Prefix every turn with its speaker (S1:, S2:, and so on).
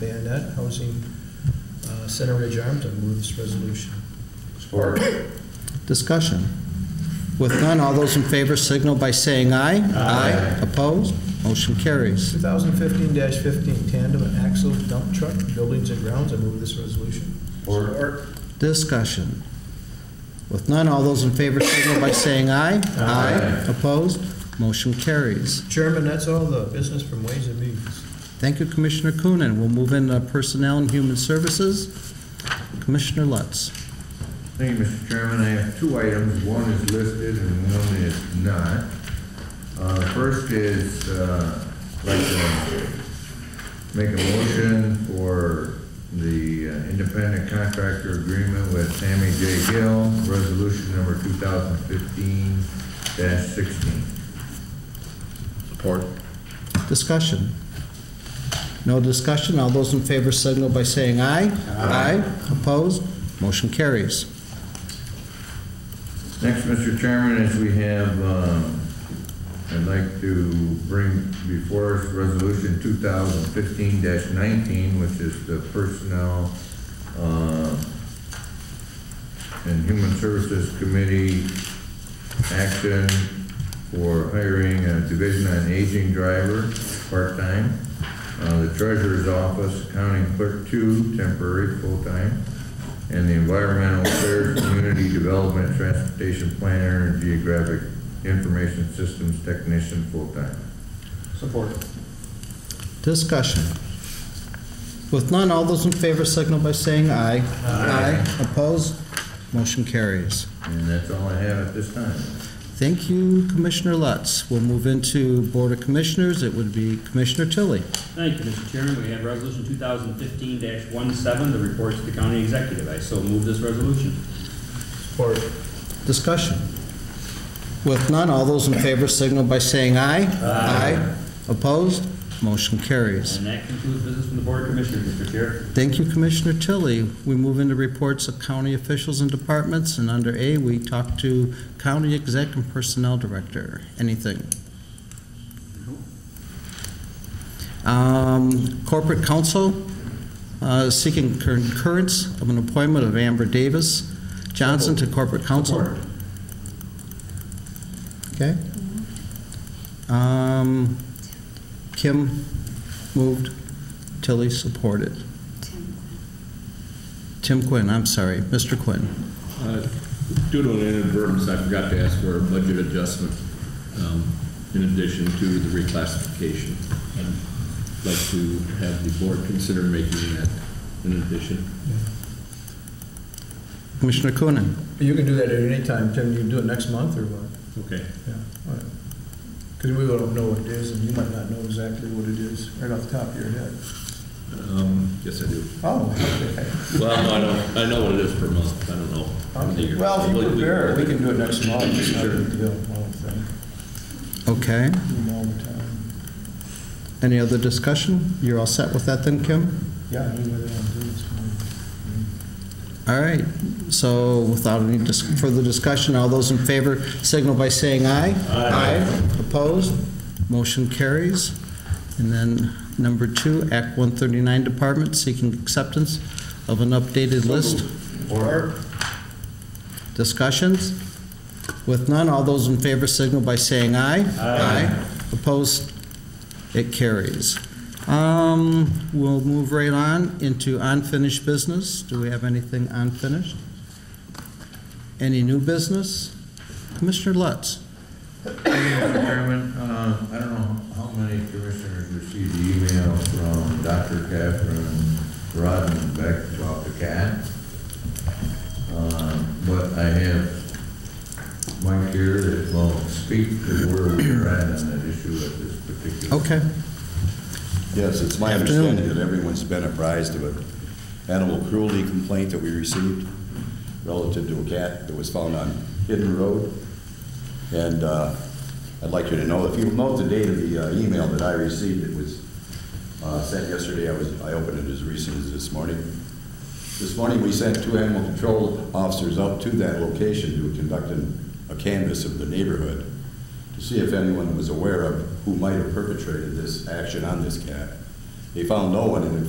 S1: Bayonet Housing uh, Center Ridge Arms. I move this resolution.
S2: Support.
S3: Discussion. With none, all those in favor signal by saying aye. Aye. Opposed? Motion carries.
S1: 2015-15 tandem axle dump truck, buildings and grounds. I move this resolution.
S2: Support.
S3: Discussion. With none, all those in favor signal by saying aye. Aye. Opposed? Motion carries.
S1: Chairman, that's all the business from Ways and Means.
S3: Thank you, Commissioner Coonan. We'll move into Personnel and Human Services. Commissioner Lutz.
S4: Thank you, Mr. Chairman. I have two items. One is listed and one is not. Uh, First is, uh, I'd like to make a motion for the uh, independent contractor agreement with Sammy J. Gill, resolution number 2015-16.
S2: Support.
S3: Discussion. No discussion. All those in favor signal by saying aye. Aye. Opposed? Motion carries.
S4: Next, Mr. Chairman, is we have, um, I'd like to bring before us Resolution 2015-19, which is the Personnel uh, and Human Services Committee action for hiring a Division on Aging driver, part-time. Uh, The Treasurer's Office, Accounting Clerk Two, temporary, full-time. And the Environmental Affairs, Community Development, Transportation Planner, and Geographic Information Systems Technician, full-time.
S2: Support.
S3: Discussion. With none, all those in favor signal by saying aye. Aye. Opposed? Motion carries.
S4: And that's all I have at this time.
S3: Thank you, Commissioner Lutz. We'll move into Board of Commissioners. It would be Commissioner Tilly.
S5: Thank you, Mr. Chairman. We have Resolution 2015-17, the reports to the county executive. I so move this resolution.
S1: Support.
S3: Discussion. With none, all those in favor signal by saying aye. Aye. Opposed? Motion carries.
S5: And that concludes business from the Board of Commissioners, Mr. Chair.
S3: Thank you, Commissioner Tilly. We move into reports of county officials and departments, and under A, we talk to County Exec and Personnel Director. Anything? Um, Corporate Counsel uh, seeking concurrence of an appointment of Amber Davis Johnson to Corporate Counsel. Okay. Um, Kim moved, Tilly supported. Tim Quinn, I'm sorry, Mr. Quinn.
S6: Uh, Due to an inadvertence, I forgot to ask for a budget adjustment um, in addition to the reclassification. I'd like to have the board consider making that an addition.
S3: Commissioner Coonan.
S1: You can do that at any time, Tim. You can do it next month or what?
S6: Okay.
S1: Yeah, Because we don't know what it is, and you might not know exactly what it is right off the top of your head.
S6: Um, Yes, I do.
S1: Oh, okay.
S6: Well, no, I don't, I know what it is per month, I don't know. for the year.
S1: Well, if you
S6: But we-
S1: prepare, it, we can do it next month, it's not a
S6: Sure.
S1: big deal, I don't think,
S3: Okay.
S1: we do them all the time.
S3: Any other discussion? You're all set with that then, Kim?
S1: Yeah, I mean, whether I'm doing this
S3: All right. So without any dis- further discussion, all those in favor signal by saying aye. Aye. Opposed? Motion carries. And then number two, Act 139 Department seeking acceptance of an updated list.
S4: Or,
S3: Discussions? With none, all those in favor signal by saying aye. Aye. Opposed? It carries. Um, We'll move right on into unfinished business. Do we have anything unfinished? Any new business? Commissioner Lutz?
S4: Mr. Chairman, uh, I don't know how many commissioners received the email from Dr. Catherine Rodenbeck about the cat. Uh, But I have Mike here that will speak to where we're at on that issue at this particular.
S3: Okay.
S7: Yes, it's my
S3: Afternoon.
S7: understanding that everyone's been apprised of an animal cruelty complaint that we received relative to a cat that was found on Hidden Road. And uh, I'd like you to know, if you'll note the date of the uh, email that I received, it was uh, sent yesterday, I was, I opened it as recent as this morning. This morning, we sent two animal control officers up to that location to conduct an- a canvass of the neighborhood to see if anyone was aware of who might have perpetrated this action on this cat. They found no one, and in